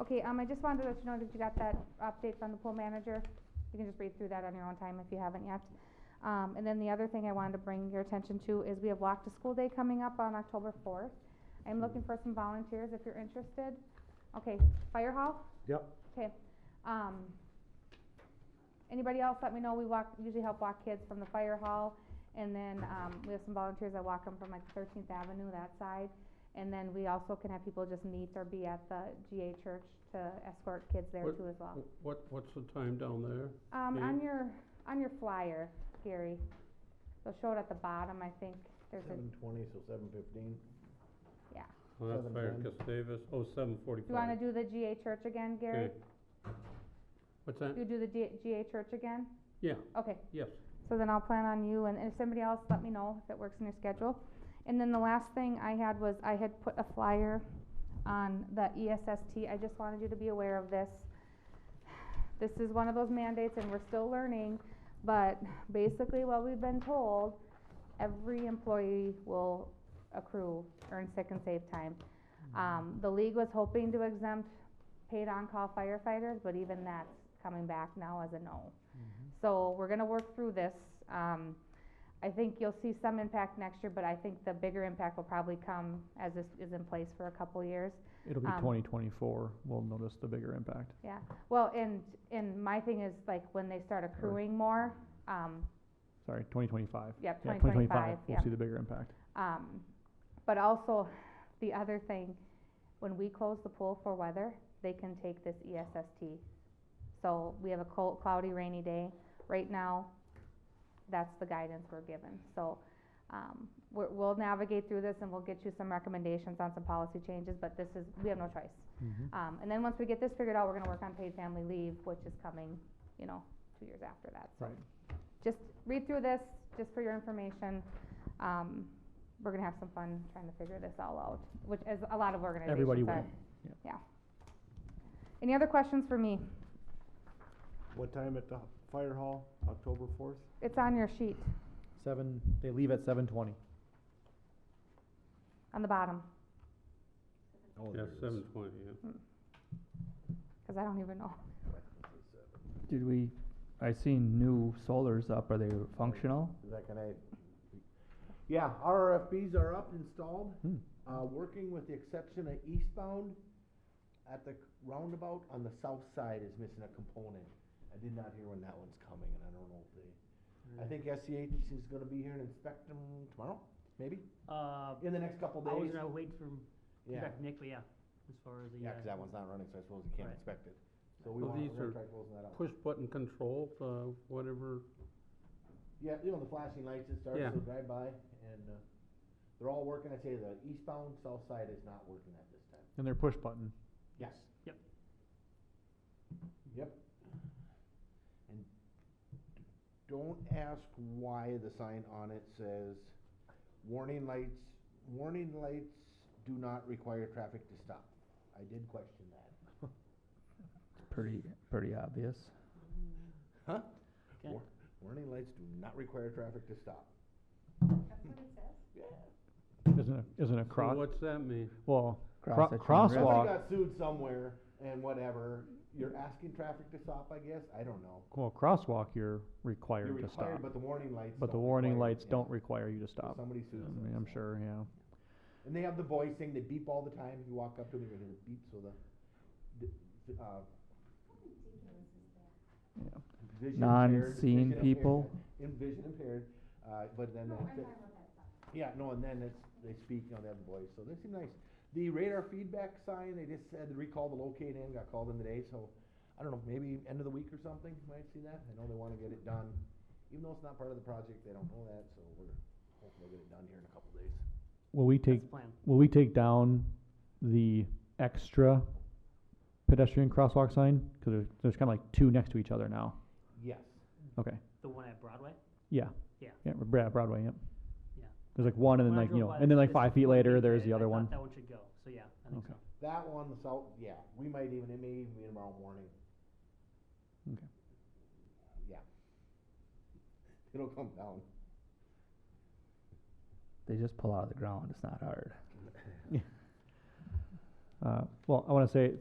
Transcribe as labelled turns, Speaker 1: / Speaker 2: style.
Speaker 1: Okay, um, I just wanted to let you know that you got that update from the pool manager. You can just read through that on your own time if you haven't yet. Um, and then the other thing I wanted to bring your attention to is we have Walk to School Day coming up on October fourth. I'm looking for some volunteers if you're interested. Okay, fire hall?
Speaker 2: Yep.
Speaker 1: Okay, um, anybody else, let me know. We walk, usually help walk kids from the fire hall. And then, um, we have some volunteers that walk them from like Thirteenth Avenue, that side. And then we also can have people just meet or be at the GA church to escort kids there
Speaker 3: What-
Speaker 1: too as well.
Speaker 3: Wh- What, what's the time down there?
Speaker 1: Um,
Speaker 3: Dave?
Speaker 1: on your, on your flyer, Gary, they'll show it at the bottom, I think, there's a,
Speaker 2: Seven twenty, so seven fifteen.
Speaker 3: Oh, that's Fire
Speaker 2: 7:10.
Speaker 3: Gustavus, oh, seven
Speaker 1: do you wanna
Speaker 3: forty-five.
Speaker 1: do the GA church again, Gary?
Speaker 3: What's that?
Speaker 1: You do the G- GA church again?
Speaker 3: Yeah.
Speaker 1: Okay,
Speaker 3: Yes.
Speaker 1: So then I'll plan on you, and if somebody else, let me know if it works in your schedule. And then the last thing I had was, I had put a flyer on the E ESST, I just wanted you to be aware of this. This is one of those mandates, and we're still learning, but basically what we've been told, every employee will accrue earn sick and save time.
Speaker 2: Mm-hmm.
Speaker 1: Um, the league was hoping to exempt paid on-call firefighters, but even that's coming back now as a no.
Speaker 4: Mm-hmm.
Speaker 1: So we're gonna work through this. Um, I think you'll see some impact next year, but I think the bigger impact will probably come as this is in place for a couple years.
Speaker 4: It'll be
Speaker 1: Um,
Speaker 4: twenty twenty-four, we'll notice the bigger impact.
Speaker 1: Well, and, and my thing is like when they start accruing more, um,
Speaker 4: Sorry, twenty twenty-five.
Speaker 1: yeah,
Speaker 4: Yeah,
Speaker 1: twenty
Speaker 4: twenty
Speaker 1: twenty-five, yeah.
Speaker 4: we'll see the bigger impact.
Speaker 1: Um, but also, the other thing, when we close the pool for weather, they can take this E ESST. So we have a cold, cloudy, rainy day, right now, that's the guidance we're given, so, um, we're, we'll navigate through this and we'll get you some recommendations on some policy changes, but this is, we have no choice.
Speaker 4: Mm-hmm.
Speaker 1: Um, and then once we get this figured out, we're gonna work on paid family leave, which is coming, you know, two years after that, so.
Speaker 4: Right.
Speaker 1: Just read through this, just for your information, um, we're gonna have some fun trying to figure this all out, which is a lot of organizations are.
Speaker 4: Everybody will.
Speaker 1: Any other questions for me?
Speaker 2: What time at the fire hall, October fourth?
Speaker 1: It's on your sheet,
Speaker 4: Seven, they leave at seven twenty.
Speaker 1: on the bottom,
Speaker 2: Oh,
Speaker 3: Yeah, seven twenty, yeah.
Speaker 1: cause I don't even know.
Speaker 4: Did we, I seen new solars up, are they functional?
Speaker 2: Is that gonna? Yeah, RFPs are up, installed,
Speaker 4: Hmm.
Speaker 2: uh, working with the exception of eastbound at the roundabout on the south side is missing a component. I did not hear when that one's coming and I don't know if they, I think SEH is gonna be here and inspect them tomorrow, maybe,
Speaker 5: Uh,
Speaker 2: in the next couple
Speaker 5: I was
Speaker 2: days.
Speaker 5: gonna wait for,
Speaker 2: Yeah.
Speaker 5: back Nick, but yeah, as far as the.
Speaker 2: Yeah,
Speaker 5: uh,
Speaker 2: 'cause that one's not running, so I suppose you can't
Speaker 5: Right.
Speaker 2: inspect it. So we
Speaker 3: Well,
Speaker 2: want,
Speaker 3: these
Speaker 2: we're
Speaker 3: are
Speaker 2: gonna try closing that out.
Speaker 3: Push button control, uh, whatever,
Speaker 2: Yeah, you know, the flashing lights that starts
Speaker 3: Yeah.
Speaker 2: to drive by and, uh, they're all working. I tell you, the eastbound, south side is not working at this time.
Speaker 4: And they're push button.
Speaker 2: Yes.
Speaker 5: Yep.
Speaker 2: Yep. And don't ask why the sign on it says, warning lights, warning lights do not require traffic to stop. I did question that.
Speaker 4: It's pretty, pretty obvious.
Speaker 5: Okay.
Speaker 2: War- Warning lights do not require traffic to stop.
Speaker 1: That's what it says?
Speaker 4: Isn't it, isn't it
Speaker 3: so
Speaker 4: cross,
Speaker 3: what's that mean?
Speaker 4: well, cro- Cross at Children's Red.
Speaker 2: Somebody
Speaker 4: crosswalk,
Speaker 2: got sued somewhere and whatever, you're asking traffic to stop, I guess, I don't know.
Speaker 4: well, crosswalk, you're
Speaker 2: You're
Speaker 4: required to
Speaker 2: required,
Speaker 4: stop.
Speaker 2: but the warning lights.
Speaker 4: But the
Speaker 2: don't
Speaker 4: warning
Speaker 2: require it,
Speaker 4: lights
Speaker 2: yeah.
Speaker 4: don't require you to
Speaker 2: So
Speaker 4: stop.
Speaker 2: Somebody
Speaker 4: I
Speaker 2: sued
Speaker 4: mean,
Speaker 2: somebody.
Speaker 4: I'm sure, yeah.
Speaker 2: And they have the voice thing, they beep all the time, if you walk up to them, you're gonna beep, so the, the- the, uh.
Speaker 4: Yeah.
Speaker 2: vision impaired-
Speaker 4: Non-seeing
Speaker 2: vision impaired-
Speaker 4: people.
Speaker 2: in- Vision impaired, uh, but then, they- they- yeah, no, and then it's, they speak, you know, they have the voice, so they seem nice. The radar feedback sign, they just said recall the locate in, got called in today, so, I don't know, maybe end of the week or something, might see that, I know they wanna get it done. Even though it's not part of the project, they don't know that, so we're hoping they'll get it done here in a couple days.
Speaker 4: Will we
Speaker 5: That's
Speaker 4: take
Speaker 5: the plan.
Speaker 4: Will we take down the extra pedestrian crosswalk sign? Because there's, there's kind of like two next to each other now.
Speaker 2: Yes.
Speaker 4: Okay.
Speaker 5: The one at Broadway?
Speaker 4: Yeah.
Speaker 5: Yeah.
Speaker 4: Yeah. Br- Yeah. Broadway. Yep.
Speaker 5: Yeah.
Speaker 4: There's like one, and then
Speaker 5: When I
Speaker 4: like you
Speaker 5: drove
Speaker 4: know,
Speaker 5: by
Speaker 4: and
Speaker 5: this-
Speaker 4: then like
Speaker 5: this
Speaker 4: five feet
Speaker 5: one
Speaker 4: later,
Speaker 5: weekend,
Speaker 4: there's
Speaker 5: I-
Speaker 4: the
Speaker 5: I
Speaker 4: other
Speaker 5: thought
Speaker 4: one.
Speaker 5: That one should go, so yeah, I think
Speaker 4: Okay.
Speaker 5: so.
Speaker 2: That one, the south, yeah, we might even, it may even be tomorrow morning.
Speaker 4: Okay.
Speaker 2: Yeah. It'll come down.
Speaker 4: They just pull out of the ground. It's not hard. uh, well, I want to say